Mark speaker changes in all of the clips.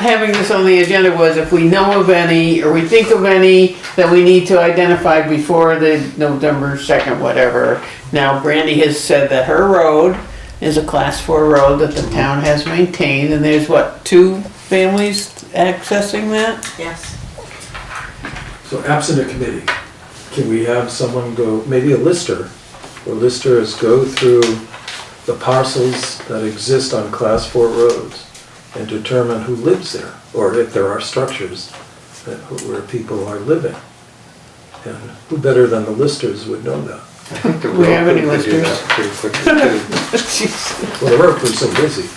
Speaker 1: having this on the agenda was if we know of any, or we think of any, that we need to identify before the November second, whatever. Now Brandy has said that her road is a class four road that the town has maintained, and there's what, two families accessing that?
Speaker 2: Yes.
Speaker 3: So absent a committee, can we have someone go, maybe a lister, or listers go through the parcels that exist on class four roads and determine who lives there, or if there are structures that, where people are living? And who better than the listers would know that?
Speaker 1: Do we have any listeners?
Speaker 4: Pretty quickly too.
Speaker 1: Jeez.
Speaker 3: Well, the road was so busy.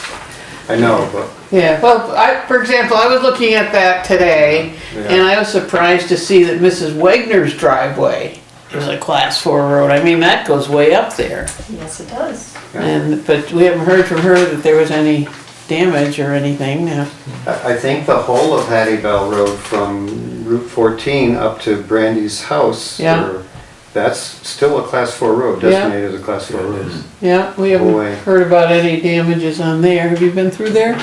Speaker 4: I know, but
Speaker 1: Yeah, well, I, for example, I was looking at that today, and I was surprised to see that Mrs. Wagner's driveway is a class four road. I mean, that goes way up there.
Speaker 2: Yes, it does.
Speaker 1: And, but we haven't heard from her that there was any damage or anything now.
Speaker 4: I, I think the whole of Hattie Bell Road from Route fourteen up to Brandy's house.
Speaker 1: Yeah.
Speaker 4: or- That's still a class four road,
Speaker 1: Yeah.
Speaker 4: designated as a class four road.
Speaker 1: Yeah, we
Speaker 4: Boy.
Speaker 1: haven't heard about any damages on there. Have you been through there?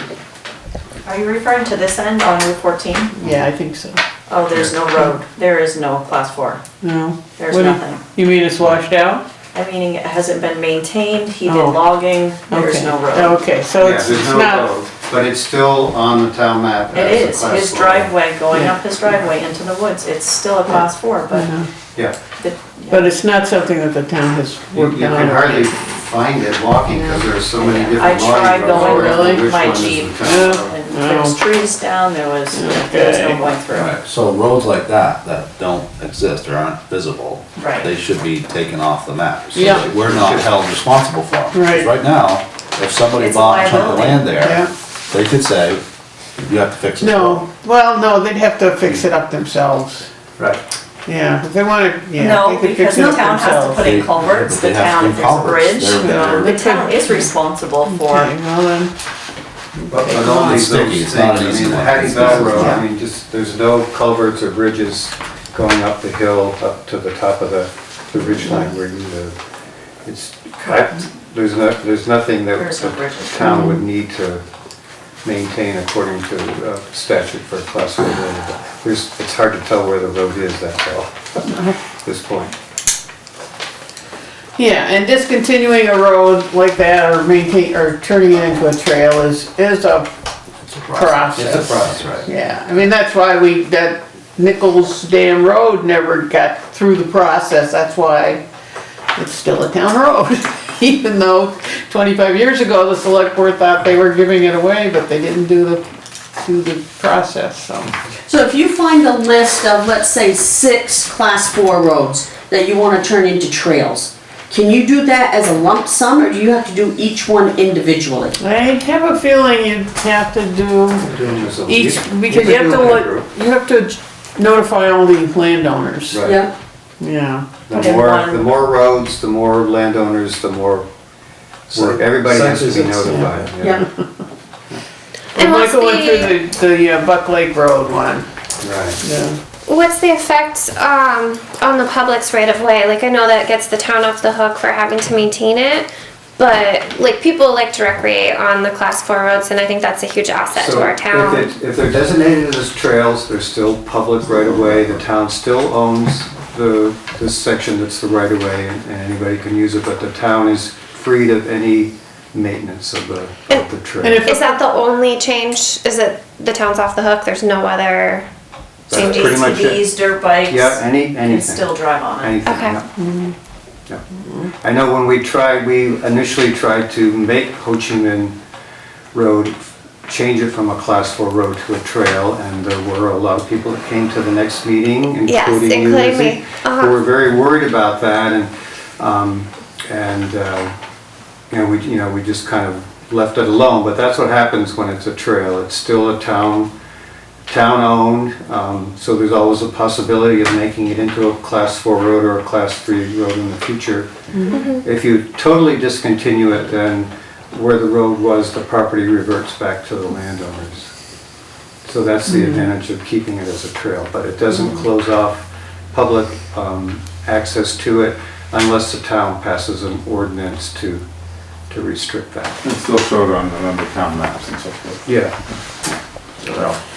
Speaker 2: Are you referring to this end on Route 14?
Speaker 1: Yeah, I think so.
Speaker 2: Oh, there's no road. There is no class four.
Speaker 1: No.
Speaker 2: There's
Speaker 1: What do you-
Speaker 2: nothing.
Speaker 1: You mean it's washed out?
Speaker 2: I mean, it hasn't been maintained. He did
Speaker 1: Oh.
Speaker 2: logging. There's
Speaker 1: Okay.
Speaker 2: no road.
Speaker 1: Okay, so
Speaker 4: Yeah,
Speaker 1: it's
Speaker 4: there's
Speaker 1: it's
Speaker 4: no
Speaker 1: not,
Speaker 4: road, But it's still on the town map
Speaker 2: It
Speaker 4: as a
Speaker 2: is.
Speaker 4: class
Speaker 2: His
Speaker 4: four.
Speaker 2: driveway, going
Speaker 1: Yeah.
Speaker 2: up his driveway into the woods, it's still a class four, but.
Speaker 4: Yeah,
Speaker 2: the-
Speaker 1: but it's not something that the town has
Speaker 4: you
Speaker 1: worked
Speaker 4: you
Speaker 1: on.
Speaker 4: can
Speaker 1: or
Speaker 4: hardly
Speaker 1: anything.
Speaker 4: find it walking because there are so many different.
Speaker 2: I tried
Speaker 4: logging
Speaker 2: going
Speaker 4: roads. I don't know
Speaker 1: with
Speaker 4: which
Speaker 2: my
Speaker 4: one is the
Speaker 2: Jeep.
Speaker 4: town
Speaker 1: Yeah.
Speaker 4: road.
Speaker 2: And there was trees down, there was, there was
Speaker 1: Okay.
Speaker 2: no going through.
Speaker 5: Right, so roads like that, that don't exist or aren't visible,
Speaker 2: Right.
Speaker 5: they should be taken off the map. so
Speaker 1: Yeah.
Speaker 5: that We're not held responsible for them. 'Cause
Speaker 1: Right.
Speaker 5: Right now, if somebody
Speaker 2: It's a
Speaker 5: bought a chunk of
Speaker 2: liability.
Speaker 5: land
Speaker 1: Yeah.
Speaker 5: there, they could say, you have to fix this road.
Speaker 1: No, well, no, they'd have to fix it up themselves.
Speaker 5: Right.
Speaker 1: Yeah, if they wanna, yeah,
Speaker 2: No,
Speaker 1: they could
Speaker 2: because
Speaker 1: fix it
Speaker 2: the
Speaker 1: up
Speaker 2: town has to
Speaker 1: themselves.
Speaker 2: put in culverts, the
Speaker 5: They have
Speaker 2: town,
Speaker 5: to
Speaker 2: if
Speaker 5: do
Speaker 2: there's a
Speaker 5: culverts.
Speaker 2: bridge,
Speaker 5: They're- they're-
Speaker 2: the town is responsible
Speaker 1: Okay,
Speaker 2: for,
Speaker 1: well then,
Speaker 4: But but all these
Speaker 5: Sticky,
Speaker 4: those
Speaker 5: it's not
Speaker 4: things, I
Speaker 5: an easy
Speaker 4: mean, the
Speaker 5: one.
Speaker 4: Hattie Bell Road,
Speaker 1: Yeah.
Speaker 4: I mean, just, there's no culverts or bridges going up the hill, up to the top of the, the ridge line where you live. It's, I- there's no, there's nothing that
Speaker 2: There's no
Speaker 4: the
Speaker 2: bridges.
Speaker 4: town would need to maintain according to uh, statute for a class four road. But There's, it's hard to tell where the road is, that's all, at this point.
Speaker 1: yeah, and discontinuing a road like that or maintain, or turning it into a trail is, is a
Speaker 5: It's a
Speaker 1: Process.
Speaker 5: It's a process, right.
Speaker 1: Yeah, I mean, that's why we, that Nichols Dam Road never got through the process, that's why it's still a town road. Even though twenty-five years ago, the select board thought they were giving it away, but they didn't do the, do the process, so.
Speaker 6: So if you find a list of, let's say, six class four roads that you wanna turn into trails, can you do that as a lump sum, or do you have to do each one individually?
Speaker 1: I have a feeling you'd have to do each, because you have to, look- you have to notify all the landowners,
Speaker 4: Right.
Speaker 6: Yeah,
Speaker 1: yeah.
Speaker 4: The
Speaker 2: And
Speaker 4: more,
Speaker 2: one-
Speaker 4: the more roads, the more landowners, the more, work. everybody has to be
Speaker 3: Site visits, yeah.
Speaker 4: notified. yeah.
Speaker 6: yeah.
Speaker 1: And
Speaker 7: And what's
Speaker 1: Michael went
Speaker 7: the-
Speaker 1: through the, the uh, Buck Lake Road one,
Speaker 4: Right.
Speaker 1: yeah.
Speaker 7: What's the effect um, on the public's right of way? Like, I know that gets the town off the hook for having to maintain it, but like people like to recreate on the class four roads, and I think that's a huge asset
Speaker 4: So
Speaker 7: to our
Speaker 4: if
Speaker 7: town.
Speaker 4: it- If they're designated as trails, they're still public right-of-way, the town still owns the, this section that's the right-of-way, and and anybody can use it, but the town is freed of any maintenance of the, of the
Speaker 1: And
Speaker 4: trail.
Speaker 1: if-
Speaker 7: Is that the only change? Is it the town's off the hook? There's no other
Speaker 4: That's
Speaker 7: changes.
Speaker 4: pretty much it.
Speaker 2: ATVs, dirt bikes.
Speaker 4: Yeah, any,
Speaker 2: Can
Speaker 4: anything.
Speaker 2: still drive on it.
Speaker 4: Anything,
Speaker 7: Okay.
Speaker 4: yeah. Yeah. I know when we tried, we initially tried to make Ho Chi Minh Road, change it from a class four road to a trail, and there were a lot of people that came to the next meeting,
Speaker 7: Yes,
Speaker 4: including you,
Speaker 7: including
Speaker 4: Lizzie,
Speaker 7: me. Uh-huh.
Speaker 4: who were very worried about that, and, um, and, uh, you know, we, you know, we just kind of left it alone, but that's what happens when it's a trail, it's still a town, town-owned, um, so there's always a possibility of making it into a class four road or a class three road in the future. If you totally discontinue it, then where the road was, the property reverts back to the landowners. So that's the advantage of keeping it as a trail, but it doesn't close off public, um, access to it unless the town passes an ordinance to, to restrict that.
Speaker 8: It's still showed on the number of town maps and so forth.
Speaker 4: Yeah.
Speaker 1: road.